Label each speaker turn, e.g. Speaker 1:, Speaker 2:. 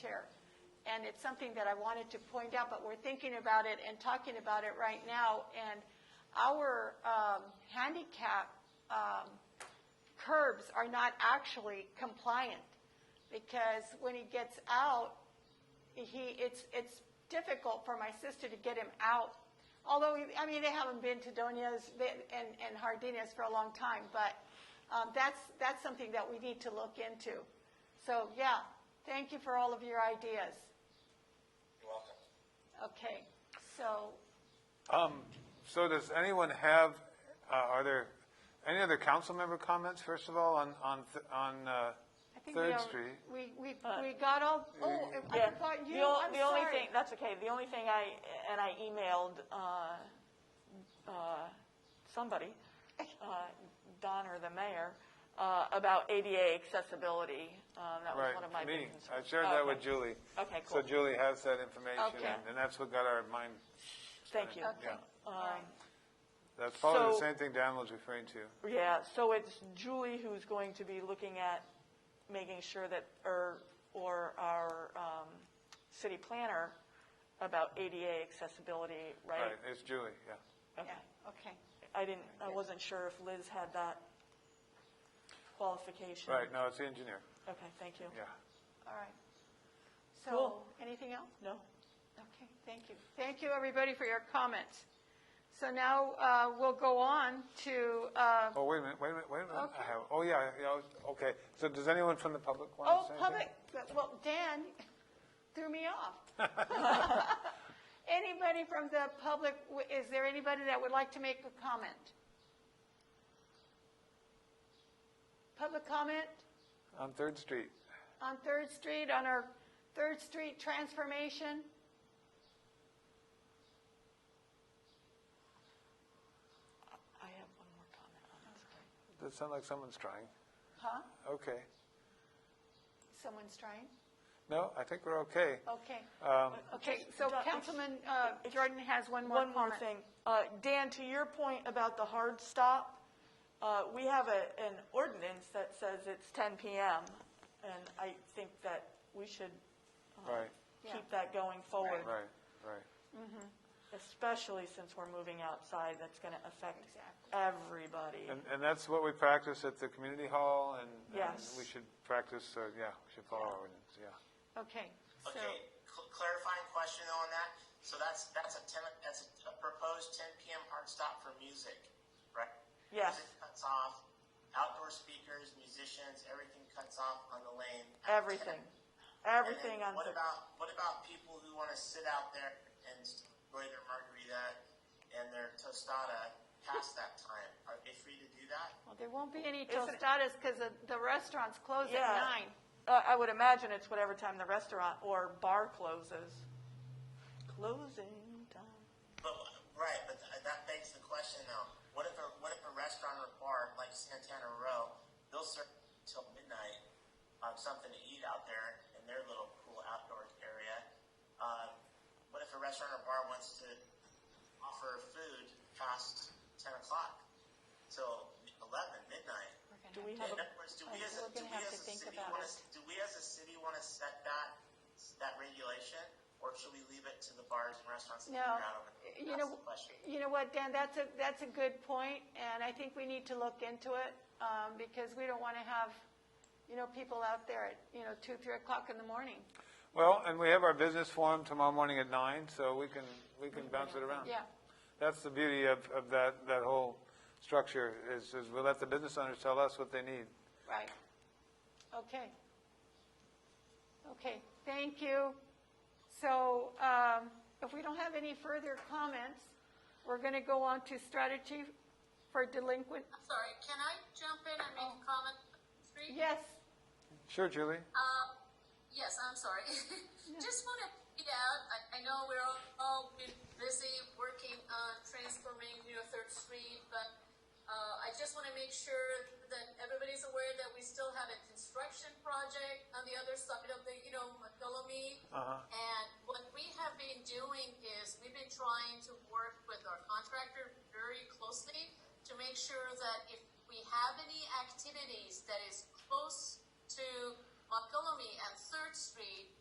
Speaker 1: chair. And it's something that I wanted to point out, but we're thinking about it and talking about it right now. And our um, handicap um, curbs are not actually compliant because when he gets out, he, it's, it's difficult for my sister to get him out. Although, I mean, they haven't been to Donia's and, and Hardina's for a long time, but um, that's, that's something that we need to look into. So, yeah, thank you for all of your ideas.
Speaker 2: You're welcome.
Speaker 1: Okay, so,
Speaker 3: Um, So does anyone have, uh, are there any other council member comments, first of all, on, on, th- on uh,
Speaker 1: I think we,
Speaker 3: Third
Speaker 1: al-
Speaker 3: Street?
Speaker 1: we, we, we got all, oh, I
Speaker 4: Uh, Yeah.
Speaker 1: forgot you,
Speaker 4: The ol-
Speaker 1: I'm
Speaker 4: The only
Speaker 1: sorry.
Speaker 4: thing, that's okay, the only thing I, and I emailed uh, uh, somebody, uh, Don or the mayor, uh, about ADA accessibility. Um, That was
Speaker 3: Right,
Speaker 4: one of my
Speaker 3: me.
Speaker 4: big
Speaker 3: I
Speaker 4: concerns.
Speaker 3: shared
Speaker 4: Oh,
Speaker 3: that
Speaker 4: okay.
Speaker 3: with Julie.
Speaker 4: Okay,
Speaker 3: So
Speaker 4: cool.
Speaker 3: Julie has that information,
Speaker 4: Okay.
Speaker 3: and- and that's what got our mind,
Speaker 4: Thank you. Um,
Speaker 1: Okay,
Speaker 3: Yeah.
Speaker 1: all right.
Speaker 3: that's probably the
Speaker 4: So-
Speaker 3: same thing Dan was referring to.
Speaker 4: Yeah, so it's Julie who's going to be looking at making sure that, or, or our um, city planner about ADA accessibility, right?
Speaker 3: Right, it's Julie, yeah.
Speaker 4: Okay.
Speaker 1: Yeah, okay.
Speaker 4: I didn't, I wasn't sure if Liz had that qualification.
Speaker 3: Right, no, it's the engineer,
Speaker 4: Okay, thank you.
Speaker 3: yeah.
Speaker 1: All right. So,
Speaker 4: Cool.
Speaker 1: anything else?
Speaker 4: No?
Speaker 1: Okay, thank you. Thank you, everybody, for your comments. So now uh, we'll go on to, uh,
Speaker 3: Oh, wait a minute, wait a minute, wait a minute. I
Speaker 1: Okay.
Speaker 3: have, oh, yeah, yeah, okay. So does anyone from the public want to
Speaker 1: oh,
Speaker 3: say anything?
Speaker 1: public, well, Dan threw me off. Anybody from the public, w- is there anybody that would like to make a comment? Public comment
Speaker 3: On Third Street.
Speaker 1: on Third Street, on our Third Street transformation?
Speaker 4: I have one more comment on this.
Speaker 3: Does sound like someone's trying?
Speaker 1: Huh?
Speaker 3: Okay.
Speaker 1: Someone's trying?
Speaker 3: No, I think we're okay.
Speaker 4: Oh,
Speaker 1: Okay.
Speaker 3: Um,
Speaker 1: Okay,
Speaker 4: Just-
Speaker 1: so
Speaker 4: Don-
Speaker 1: Councilman uh,
Speaker 4: it's-
Speaker 1: Jordan has one more
Speaker 4: One
Speaker 1: comment.
Speaker 4: more thing. Uh, Dan, to your point about the hard stop, uh, we have a, an ordinance that says it's ten PM. And I think that we should uh,
Speaker 3: Right.
Speaker 1: Yeah.
Speaker 4: keep that going forward.
Speaker 3: Right, right.
Speaker 4: Especially since we're moving outside, that's going to affect
Speaker 1: Exactly.
Speaker 4: everybody.
Speaker 3: And, and that's what we practice at the community hall, and and
Speaker 4: Yes.
Speaker 3: we should practice, uh, yeah, we should follow our ordinance, yeah.
Speaker 1: Okay, so,
Speaker 2: Okay, cl- clarifying question though on that, so that's, that's a ten, that's a proposed ten PM hard stop for music, right?
Speaker 4: Yes.
Speaker 2: Music cuts off, outdoor speakers, musicians, everything cuts off on the lane. at 10.
Speaker 4: Everything,
Speaker 2: And then
Speaker 4: everything on.
Speaker 2: What
Speaker 4: the-
Speaker 2: about, what about people who wanna sit out there and enjoy their margarita and their tostada past that time? Are they free to do that?
Speaker 1: well, there won't be any
Speaker 4: Isn't it-
Speaker 1: tostadas because the restaurants close at
Speaker 4: Yeah.
Speaker 1: nine.
Speaker 4: Uh, I would imagine it's whatever time the restaurant or bar closes. Closing time.
Speaker 2: But, right, but th- that begs the question though, what if a, what if a restaurant or bar like Santana Row, they'll serve till midnight, um, something to eat out there in their little cool outdoor area. Um, what if a restaurant or bar wants to offer food past ten o'clock till eleven, midnight?
Speaker 4: Do we have
Speaker 2: In
Speaker 4: a,
Speaker 2: other words, do we as a,
Speaker 1: We're
Speaker 2: do
Speaker 1: gonna
Speaker 2: we
Speaker 1: have
Speaker 2: as
Speaker 1: to
Speaker 2: a
Speaker 1: think
Speaker 2: city
Speaker 1: about
Speaker 2: wanna,
Speaker 1: it.
Speaker 2: do we as a city wanna set that, that regulation? Or should we leave it to the bars and restaurants to
Speaker 1: No,
Speaker 2: figure out over? the-
Speaker 1: you
Speaker 2: that's
Speaker 1: know,
Speaker 2: the question.
Speaker 1: you know what, Dan, that's a, that's a good point, and I think we need to look into it, um, because we don't want to have, you know, people out there at, you know, two, three o'clock in the morning.
Speaker 3: Well, and we have our business forum tomorrow morning at nine, so we can, we can bounce it
Speaker 4: Oh.
Speaker 3: around.
Speaker 1: Yeah,
Speaker 3: That's the beauty of, of that, that whole structure, is, is we let the business owners tell us what they need.
Speaker 1: right. Okay. Okay, thank you. So um, if we don't have any further comments, we're going to go on to strategy for delinquent.
Speaker 5: I'm sorry, can I jump in and make a comment? Three?
Speaker 1: Yes,
Speaker 3: Sure, Julie?
Speaker 5: Um, yes, I'm sorry. Just want to point out, I, I know we're all, all been busy working on transforming, you know, Third Street, but uh, I just want to make sure that everybody's aware that we still have a construction project on the other side of the, you know, Montgomery. And what we have been doing is we've been trying to work with our contractor very closely to make sure that if we have any activities that is close to Montgomery and Third Street,